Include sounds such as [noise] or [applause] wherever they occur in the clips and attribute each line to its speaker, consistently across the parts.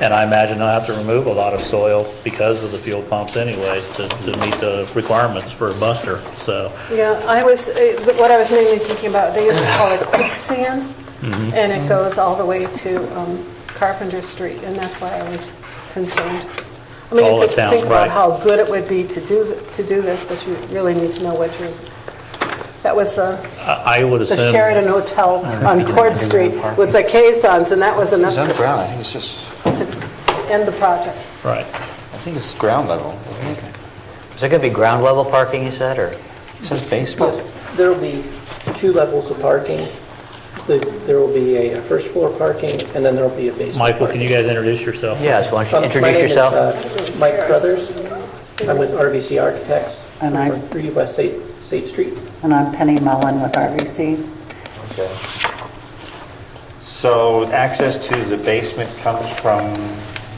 Speaker 1: And I imagine I'll have to remove a lot of soil because of the fuel pumps anyways to, to meet the requirements for a buster, so.
Speaker 2: Yeah, I was, eh, what I was mainly thinking about, they used to call it
Speaker 1: [coughs]
Speaker 2: quicksand,
Speaker 1: Mm-hmm.
Speaker 2: and it goes all the way to um, Carpenter Street, and that's why I was concerned. I mean,
Speaker 1: All
Speaker 2: you
Speaker 1: the
Speaker 2: could
Speaker 1: town,
Speaker 2: think about
Speaker 1: right.
Speaker 2: how good it would be to do, th- to do this, but you really need to know what you're, that was uh,
Speaker 1: I I would
Speaker 2: the
Speaker 1: assume.
Speaker 2: Sheridan Hotel on Court Street with the caissons, and that was enough
Speaker 3: It's
Speaker 2: to
Speaker 3: underground, I think it's just,
Speaker 2: to end the project.
Speaker 1: Right.
Speaker 3: I think it's ground level, isn't it?
Speaker 4: Is it going to be ground level parking, you said, or?
Speaker 3: It says basement.
Speaker 5: There'll be two levels of parking. The- There will be a first floor parking, and then there'll be a basement.
Speaker 1: Michael, can you guys introduce yourself?
Speaker 4: Yes, why don't you
Speaker 5: Um,
Speaker 4: introduce yourself?
Speaker 5: My name is uh, Mike Brothers. I'm with RVC Architects.
Speaker 6: And I'm-
Speaker 5: We're 3 West State State Street.
Speaker 6: And I'm Penny Mullen with RVC.
Speaker 4: Okay.
Speaker 3: So access to the basement comes from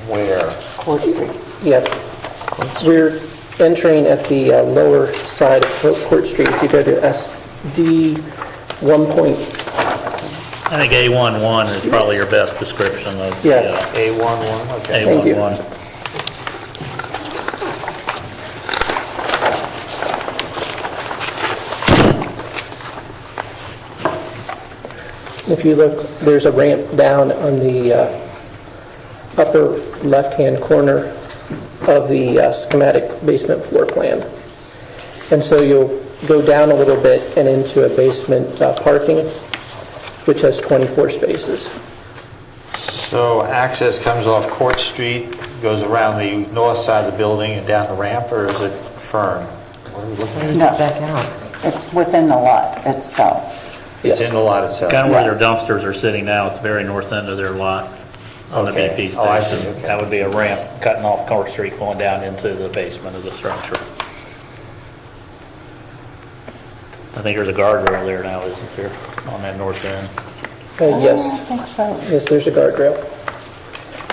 Speaker 3: where?
Speaker 6: Court Street.
Speaker 5: Yep. We're entering at the uh, lower side of Court- Court Street. If you go to SD 1.1,
Speaker 1: I think A11 is probably your best description of the
Speaker 5: Yeah.
Speaker 1: uh,
Speaker 3: A11, okay.
Speaker 5: Thank you.
Speaker 1: A11.
Speaker 5: if you look, there's a ramp down on the uh, upper left-hand corner of the uh, schematic basement floor plan. And so you'll go down a little bit and into a basement uh, parking, which has 24 spaces.
Speaker 3: So access comes off Court Street, goes around the north side of the building and down the ramp, or is it Fern? What are we looking at?
Speaker 6: No. It's within the lot itself.
Speaker 3: It's in the lot itself.
Speaker 1: Kind of where their
Speaker 6: Yes.
Speaker 1: dumpsters are sitting now, at the very north end of their lot on the
Speaker 3: Okay.
Speaker 1: BP station.
Speaker 3: Oh, I see, okay.
Speaker 1: That would be a ramp cutting off Court Street going down into the basement of the structure. I think there's a guardrail there now, isn't there, on that north end?
Speaker 5: Uh, Yes.
Speaker 6: I think so.
Speaker 5: Yes, there's a guardrail.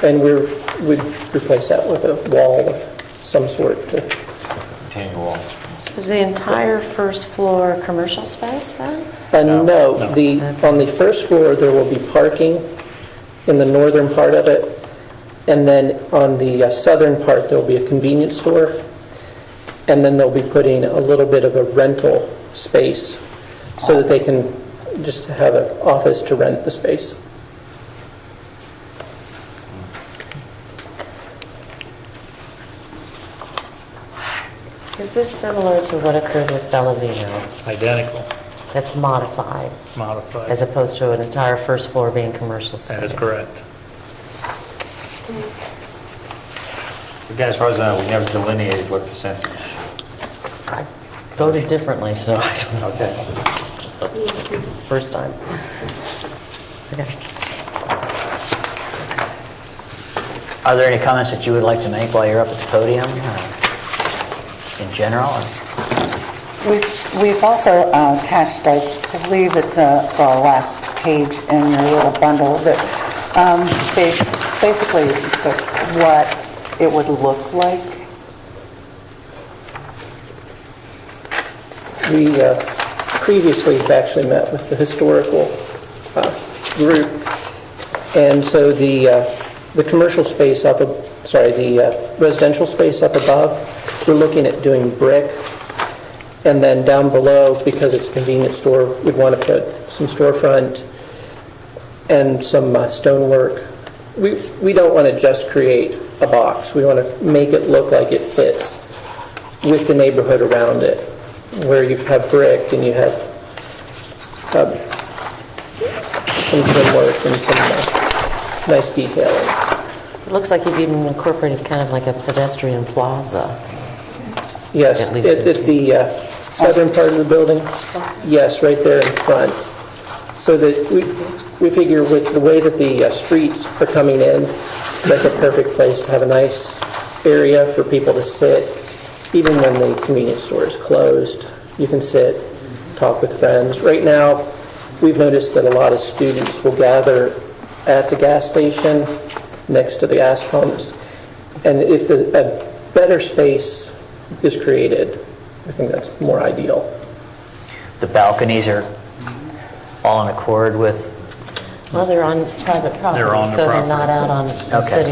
Speaker 5: And we're, we'd replace that with a wall of some sort. to-
Speaker 3: Retaining wall.
Speaker 7: So is the entire first floor commercial space then?
Speaker 5: And no, the, on the first floor, there will be parking in the northern part of it. And then on the uh, southern part, there'll be a convenience store. And then they'll be putting a little bit of a rental space so that they can just have an office to rent the space.
Speaker 7: Is this similar to what occurred with Bellavino?
Speaker 1: Identical,
Speaker 7: That's modified,
Speaker 1: modified.
Speaker 7: as opposed to an entire first floor being commercial space?
Speaker 1: That is correct.
Speaker 3: Again, as far as I know, we never delineated what percentage.
Speaker 7: I voted differently, so I don't know,
Speaker 3: Okay.
Speaker 7: first time. Okay.
Speaker 4: Are there any comments that you would like to make while you're up at the podium, or in general? or-
Speaker 6: We've- We've also uh, attached, I believe it's uh, the last page in your little bundle, that um, ba- basically that's what it would look like.
Speaker 5: We uh, previously have actually met with the historical uh, group, and so the, uh, the commercial space up, ab- sorry, the uh, residential space up above, we're looking at doing brick, and then down below, because it's a convenience store, we'd want to put some storefront and some uh, stonework. We, we don't want to just create a box, we want to make it look like it fits with the neighborhood around it, where you have brick and you have um, some trim work and some uh, nice detailing.
Speaker 7: It looks like you've even incorporated kind of like a pedestrian plaza.
Speaker 5: Yes,
Speaker 7: At least
Speaker 5: at
Speaker 7: it-
Speaker 5: at the uh, southern part of the building, yes, right there in front. So that we, we figure with the way that the uh, streets are coming in, that's a perfect place to have a nice area for people to sit. Even when the convenience store is closed, you can sit, talk with friends. Right now, we've noticed that a lot of students will gather at the gas station, next to the gas pumps. And if the, a better space is created, I think that's more ideal.
Speaker 4: The balconies are all in accord with
Speaker 7: Well, they're on private property,
Speaker 1: They're on the
Speaker 7: so they're
Speaker 1: property.
Speaker 7: not out on the
Speaker 4: Okay.
Speaker 7: city